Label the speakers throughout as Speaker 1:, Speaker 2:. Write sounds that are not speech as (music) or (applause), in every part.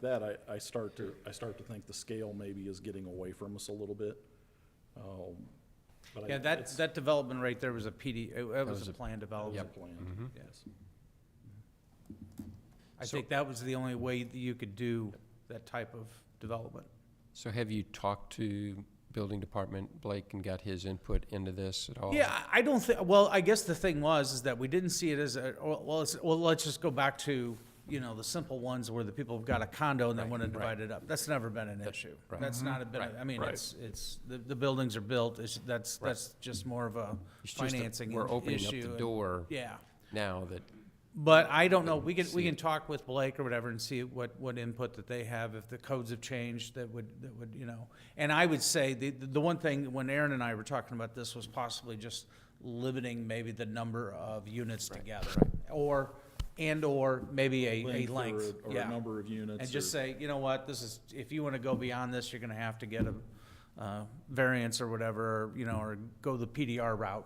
Speaker 1: that, I, I start to, I start to think the scale maybe is getting away from us a little bit. Um, but I-
Speaker 2: Yeah, that,
Speaker 1: it's-
Speaker 2: that development right there was a PD, it- it was
Speaker 3: was
Speaker 2: a
Speaker 3: a-
Speaker 2: planned
Speaker 1: it's
Speaker 2: development.
Speaker 1: planned.
Speaker 2: Yes. I think that was the only way that you could do that type of development.
Speaker 3: So have you talked to building department, Blake, and got his input into this at all?
Speaker 2: Yeah, I- I don't think, well, I guess the thing was, is that we didn't see it as a, well, well, it's- well, let's just go back to, you know, the simple ones where the people have got a condo and they want to divide it up. That's never been an issue.
Speaker 3: right.
Speaker 2: That's not a bit, of- I mean, it's, it's, the, the buildings are built, it's, that's, that's just more of a
Speaker 3: It's just that
Speaker 2: financing issue.
Speaker 3: We're opening up the
Speaker 2: and-
Speaker 3: door
Speaker 2: Yeah.
Speaker 3: now that,
Speaker 2: But I don't know, we can, we
Speaker 3: see
Speaker 2: can
Speaker 3: it.
Speaker 2: talk with Blake or whatever and see what, what input that they have, if the codes have changed, that would, that would, you know. And I would say, the, the one thing, when Aaron and I were talking about this, was possibly just limiting maybe the number of units together. Or, and/or maybe a, a
Speaker 1: Length or
Speaker 2: length,
Speaker 1: a- or a
Speaker 2: yeah.
Speaker 1: number of units
Speaker 2: And just
Speaker 1: or-
Speaker 2: say, you know what, this is, if you wanna go beyond this, you're gonna have to get a, uh, variance or whatever, you know, or go the PDR route.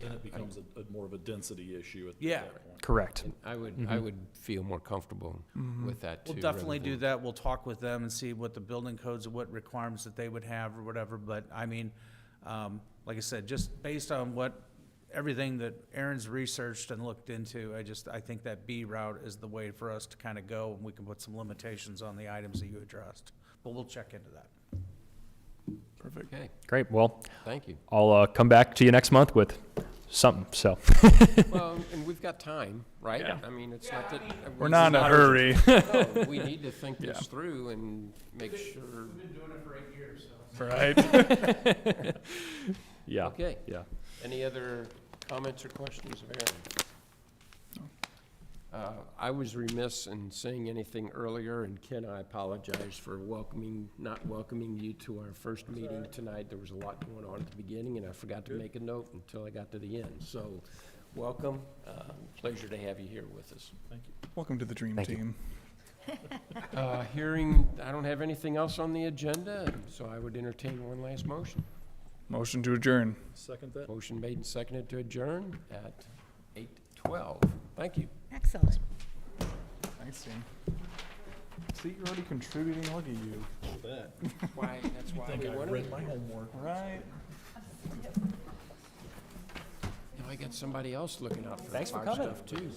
Speaker 1: Then it becomes a, a more of a density issue at
Speaker 2: uh, Yeah.
Speaker 1: that point.
Speaker 4: Correct.
Speaker 3: I would, I would feel more comfortable with that
Speaker 2: Mm-hmm.
Speaker 3: too.
Speaker 2: We'll
Speaker 3: rather
Speaker 2: definitely do
Speaker 3: than-
Speaker 2: that. We'll talk with them and see what the building codes, and what requirements that they would have or whatever. But I mean, um, like I said, just based on what, everything that Aaron's researched and looked into, I just, I think that B route is the way for us to kind of go and we can put some limitations on the items that you addressed. But we'll check into that.
Speaker 3: Okay,
Speaker 4: Great. Well,
Speaker 3: thank
Speaker 2: (laughs)
Speaker 3: you.
Speaker 4: I'll uh, come back to you next month with something. So
Speaker 3: Well, and we've got time, right? I mean, it's not that.
Speaker 5: We're not in a hurry.
Speaker 3: hurry. We need to think this through and make sure,
Speaker 2: Been doing it for eight years, so.
Speaker 5: (laughs) Right.
Speaker 4: yeah.
Speaker 3: okay.
Speaker 4: Yeah.
Speaker 3: Any other comments or questions of Aaron? Uh, I was remiss in saying anything earlier, and Ken, I apologize for welcoming, not welcoming you to our first meeting tonight. There was a lot going on at the beginning, and I forgot to make a note until I got to the end. So, welcome. Uh, Pleasure to have you here with us.
Speaker 5: Welcome to the dream team.
Speaker 3: Uh, Hearing, I don't have anything else on the agenda, so I would entertain one last motion.
Speaker 5: Motion to adjourn.
Speaker 1: Second that?
Speaker 3: Motion made and seconded to adjourn at 8:12. Thank you.
Speaker 6: Excellent.
Speaker 5: Thanks, team. See, you're already contributing. Look at you.
Speaker 1: That.
Speaker 3: Why, that's why
Speaker 1: Think
Speaker 3: we
Speaker 1: I
Speaker 3: wanted
Speaker 1: read
Speaker 3: it.
Speaker 1: my homework.
Speaker 5: Right.
Speaker 3: Now I got somebody else looking out for our stuff too.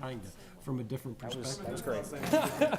Speaker 3: Kinda, from a different perspective.